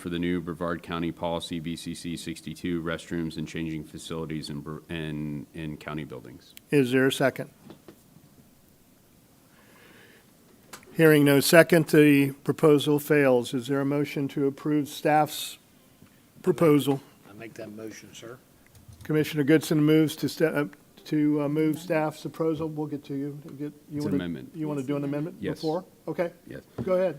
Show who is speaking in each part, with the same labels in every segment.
Speaker 1: for the new Brevard County Policy BCC 62, restrooms and changing facilities in, Bre- in, in county buildings.
Speaker 2: Is there a second? Hearing no second, the proposal fails. Is there a motion to approve staff's proposal?
Speaker 3: I make that motion, sir.
Speaker 2: Commissioner Goodson moves to, sta- uh, to uh, move staff's proposal. We'll get to you. Get- you
Speaker 1: It's an
Speaker 2: wanna-
Speaker 1: amendment.
Speaker 2: You want to do an amendment
Speaker 1: Yes.
Speaker 2: before? Okay,
Speaker 1: Yes.
Speaker 2: go ahead.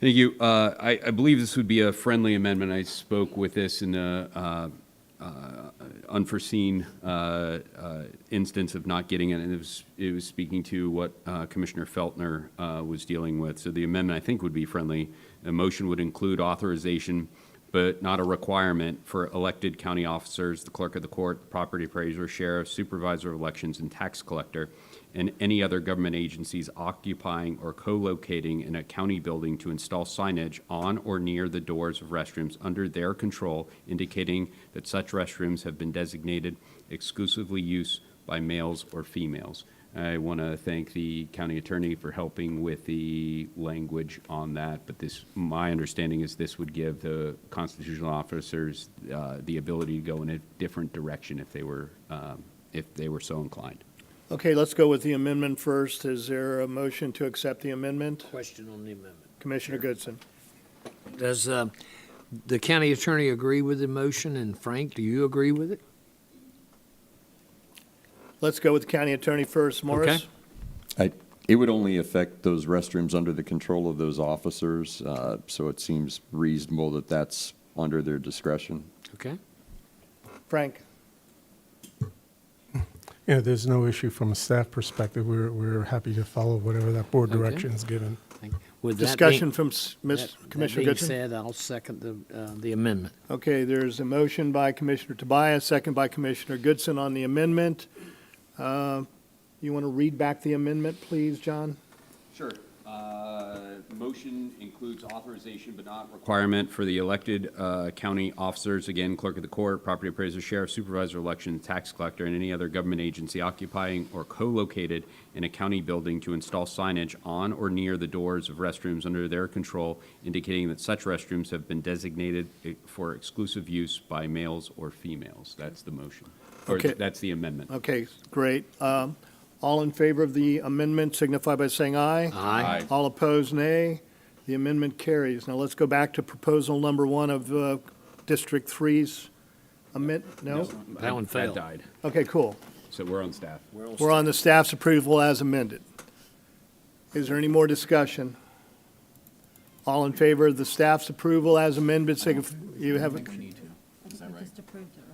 Speaker 1: Thank you. Uh, I, I believe this would be a friendly amendment. I spoke with this in the uh, uh, unforeseen uh, uh, instance of not getting it, and it was, it was speaking to what uh, Commissioner Feltner uh, was dealing with. So the amendment, I think, would be friendly. The motion would include authorization, but not a requirement, for elected county officers, the clerk of the court, property appraiser, sheriff, supervisor of elections, and tax collector, and any other government agencies occupying or co-locating in a county building to install signage on or near the doors of restrooms under their control indicating that such restrooms have been designated exclusively use by males or females. I want to thank the county attorney for helping with the language on that, but this, my understanding is this would give the constitutional officers uh, the ability to go in a different direction if they were, um, if they were so inclined.
Speaker 2: Okay, let's go with the amendment first. Is there a motion to accept the amendment?
Speaker 3: Question on the amendment.
Speaker 2: Commissioner Goodson?
Speaker 3: Does uh, the county attorney agree with the motion, and Frank, do you agree with it?
Speaker 2: Let's go with county attorney first. Morris?
Speaker 3: Okay.
Speaker 4: I, it would only affect those restrooms under the control of those officers, uh, so it seems reasonable that that's under their discretion.
Speaker 3: Okay.
Speaker 2: Frank?
Speaker 5: Yeah, there's no issue from a staff perspective. We're, we're happy to follow whatever that board
Speaker 3: Okay.
Speaker 5: direction is given.
Speaker 3: Thank- With that being-
Speaker 2: Discussion from s-
Speaker 3: that-
Speaker 2: Ms.
Speaker 3: that
Speaker 2: Commissioner Goodson?
Speaker 3: being said, I'll second the, uh, the amendment.
Speaker 2: Okay, there's a motion by Commissioner Tobias, second by Commissioner Goodson on the amendment. Uh, You want to read back the amendment, please, John?
Speaker 1: Sure. Uh, Motion includes authorization but not requirement for the elected uh, county officers, again, clerk of the court, property appraiser, sheriff, supervisor, of election, tax collector, and any other government agency occupying or co-located in a county building to install signage on or near the doors of restrooms under their control indicating that such restrooms have been designated eh, for exclusive use by males or females. That's the motion. Or
Speaker 2: Okay.
Speaker 1: that's the amendment.
Speaker 2: Okay, great. Um, All in favor of the amendment signify by saying aye.
Speaker 3: Aye.
Speaker 1: Aye.
Speaker 2: All opposed, nay. The amendment carries. Now let's go back to proposal number one of uh, District Three's amend, no?
Speaker 3: That one failed.
Speaker 1: That died.
Speaker 2: Okay, cool.
Speaker 1: So we're on staff.
Speaker 2: We're on the staff's approval as amended. Is there any more discussion? All in favor of the staff's approval as amended, signif- you have,
Speaker 6: I think we just approved it,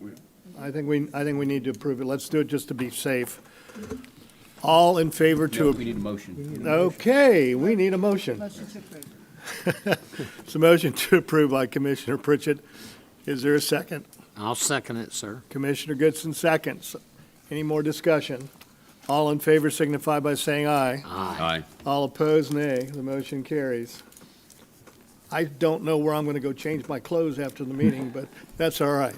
Speaker 6: right?
Speaker 2: I think we, I think we need to approve it. Let's do it just to be safe. All in favor
Speaker 1: No, We
Speaker 2: to,
Speaker 1: need a motion.
Speaker 2: okay, we need a motion.
Speaker 6: Motion to approve.
Speaker 2: It's a motion to approve by Commissioner Pritchett. Is there a second?
Speaker 3: I'll second it, sir.
Speaker 2: Commissioner Goodson seconds. Any more discussion? All in favor signify by saying aye.
Speaker 1: Aye.
Speaker 2: All opposed, nay. The motion carries. I don't know where I'm going to go change my clothes after the meeting, but that's all right.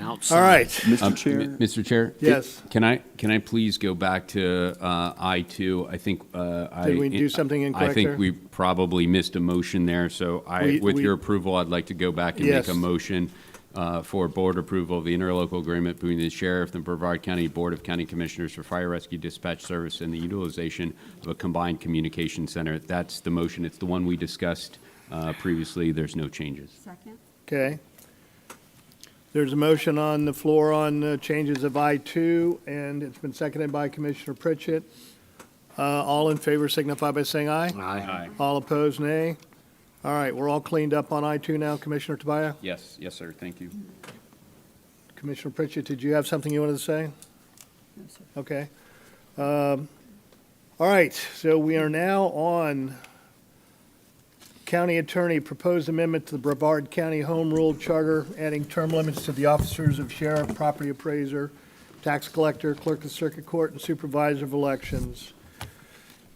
Speaker 2: All
Speaker 3: Outside.
Speaker 2: right.
Speaker 1: Um,
Speaker 4: Mr.
Speaker 1: m-
Speaker 4: Chair,
Speaker 1: Mr. Chair?
Speaker 2: Yes.
Speaker 1: Can I, can I please go back to uh, I2? I think uh, I.
Speaker 2: Did we do something incorrect
Speaker 1: I
Speaker 2: there?
Speaker 1: think we probably missed a motion there, so I,
Speaker 2: We-
Speaker 1: with
Speaker 2: we-
Speaker 1: your approval, I'd like to go back and make
Speaker 2: Yes.
Speaker 1: a motion uh, for board approval of the interlocal agreement between the sheriff and Brevard County Board of County Commissioners for Fire Rescue Dispatch Service and the utilization of a combined communication center. That's the motion. It's the one we discussed uh, previously. There's no changes.
Speaker 6: Second?
Speaker 2: Okay. There's a motion on the floor on uh, changes of I-2, and it's been seconded by Commissioner Pritchett. Uh, All in favor signify by saying aye.
Speaker 3: Aye.
Speaker 2: All opposed, nay. All right, we're all cleaned up on I-2 now. Commissioner Tobias?
Speaker 1: Yes, yes, sir. Thank you.
Speaker 2: Commissioner Pritchett, did you have something you wanted to say?
Speaker 6: No, sir.
Speaker 2: Okay. Um, All right, so we are now on County Attorney Proposed Amendment to the Brevard County Home Rule Charter, adding term limits to the officers of sheriff, property appraiser, tax collector, clerk of circuit court, and supervisor of elections.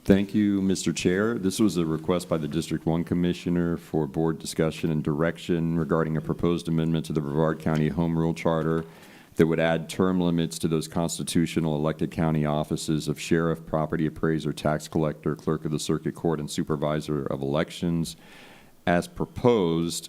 Speaker 4: thank you, Mr. Chair. This was a request by the District One Commissioner for board discussion and direction regarding a proposed amendment to the Brevard County Home Rule Charter that would add term limits to those constitutional elected county offices of sheriff, property appraiser, tax collector, clerk of the circuit court, and supervisor of elections. as proposed